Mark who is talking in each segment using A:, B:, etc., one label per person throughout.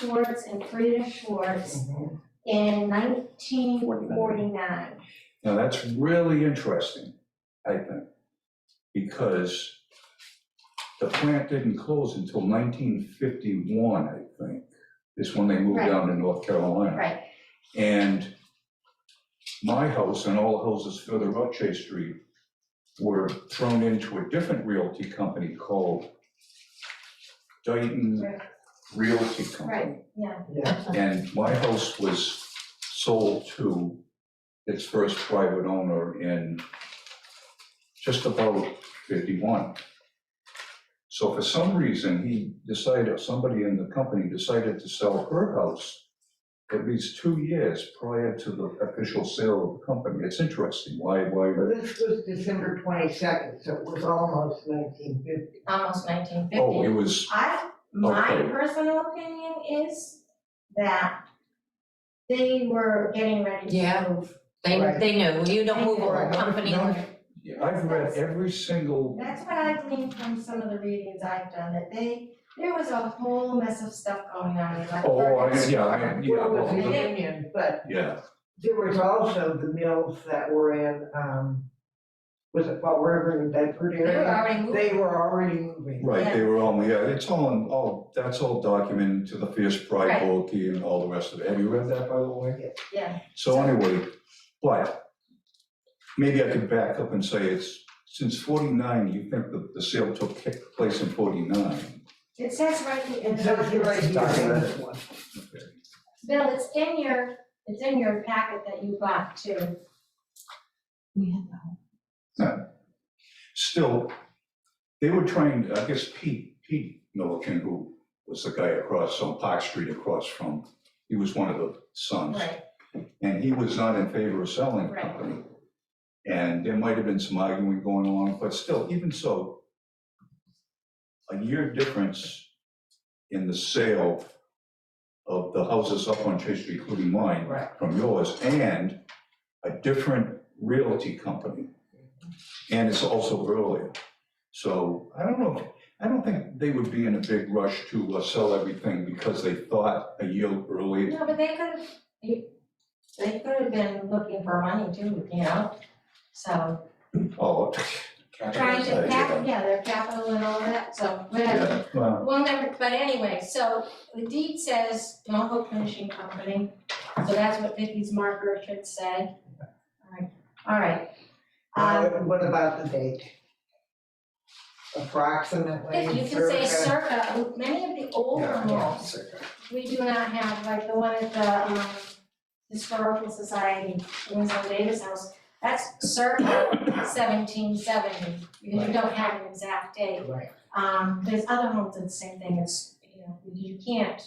A: Schwartz and Frida Schwartz
B: Mm-hmm.
A: in nineteen forty-nine.
B: Now, that's really interesting, I think, because the plant didn't close until nineteen fifty-one, I think, is when they moved
A: Right.
B: down to North Carolina.
A: Right,
B: And my house and all the houses further up Chase Street were thrown into a different realty company called Dayton
A: Right.
B: Realty Company.
A: right, yeah,
B: And my house was sold to its first private owner in just about fifty-one. So for some reason, he decided, somebody in the company decided to sell her house at least two years prior to the official sale of the company. It's interesting, why, why,
C: Well, this was December twenty-second, so it was almost nineteen fifty.
A: almost nineteen fifty.
B: oh, it was,
A: I, my
B: Okay.
A: personal opinion is that they were getting ready
D: Yeah.
A: to move.
D: They,
C: Right.
D: they knew, you don't move over a
C: Right.
D: company.
B: No. I've read every single
A: That's what I gleaned from some of the readings I've done, that they, there was a whole mess of stuff going on, like.
B: Oh, I, yeah, I, yeah,
C: Well, it was
B: well,
C: a union, but
B: yeah,
C: there was also the mills that were in, um, was it Fall River and Bedford
A: They were
C: area?
A: already moving,
C: They were already moving.
B: right, they were all, yeah, it's all, in- all, that's all documented to the fierce
A: Right.
B: pride bulletin and all the rest of it. Have you read that, by the way?
A: yeah,
B: So anyway, but maybe I could back up and say it's, since forty-nine, you think that the sale took place in forty-nine?
A: it says right in
C: And
A: the
C: so you're right,
A: document.
C: you remember this one.
A: Bill, it's in your, it's in your packet that you got too.
B: Still, they were trying, to- I guess Pete, Pete Milliken, who was the guy across, on Park Street across from, he was one of the sons.
A: Right,
B: And he was not in favor of selling the
A: Right.
B: company. And there might have been some arguing going on, but still, even so, a year difference in the sale of the houses up on Chase Street, including mine,
C: Right.
B: from yours, and a different realty company. And it's also earlier. So I don't know, I don't think they would be in a big rush to uh, sell everything because they thought a year earlier
A: no, but they could have, you, they could have been looking for money too, you know? So,
B: Oh.
A: trying to cap, yeah, their capital and all that, so whatever.
B: Yeah, well,
A: Well, never, but anyway, so the deed says Mohawk Finishing Company, so that's what Vicky's marker should say. Alright, alright.
C: Uh,
A: Um,
C: what about the date? Approximately.
A: if you can say
C: circa-
A: circa, many of the older laws, we do not have, like the one at the, um, Historical Society, Winslow Davis House, that's circa seventeen seventy, because you don't have an exact date.
C: Right.
A: Um, there's other homes that the same thing, it's, you know, you can't,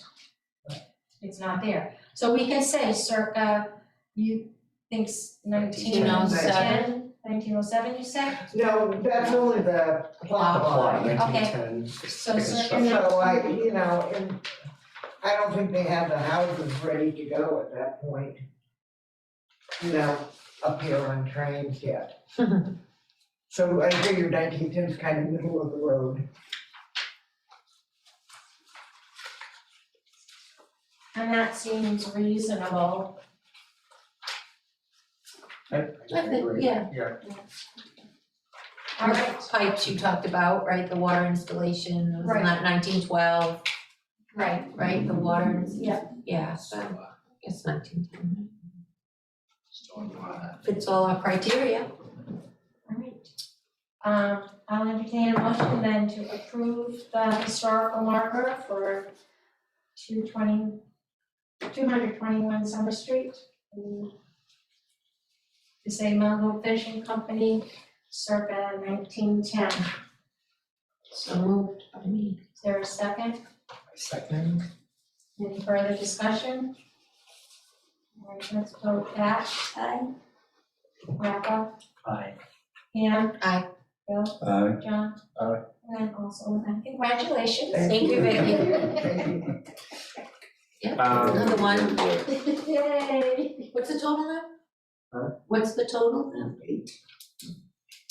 A: it's not there. So we can say circa, you thinks nineteen oh
D: 1907.
A: seven, nineteen oh seven, you said?
C: No, that's only the plot line.
A: Okay. So circa,
C: So I, you know, and I don't think they had the houses ready to go at that point. You know, up here on trains yet. So I figured nineteen ten's kind of middle of the road.
A: and that seems reasonable. yeah.
E: Yeah.
A: All right,
D: Pipes you talked about, right, the water installation, it was
A: Right.
D: not nineteen twelve,
A: right,
D: right, the water, ins-
A: yeah,
D: yeah, so, I guess nineteen ten.
E: Stormwater.
D: Fits all our criteria,
A: all right. Um, I'll entertain a motion then to approve the historical marker for two twenty, two hundred twenty-one Summer Street. Mm. To say Malibu Fishing Company circa nineteen ten.
D: so moved by me.
A: Is there a second?
E: Second.
A: Any further discussion? All right, let's vote that. Aye. Rafa,
E: Aye.
A: Pam?
D: Aye.
A: Bill,
B: uh,
A: John?
E: Aye.
A: And I'm also an aye. Congratulations.
D: Thank you, Vicky.
E: Um,
D: Another one,
B: boy.
A: Yay.
D: what's the total now?
E: Huh?
D: What's the total now?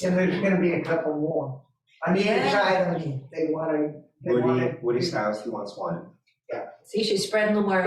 C: And there's gonna be a couple more. On either
D: Yeah.
C: side, I mean, they wanna, they
E: Woody,
C: wanna.
E: Woody's house, he wants one.
C: Yeah.
D: See, she's spreading the word.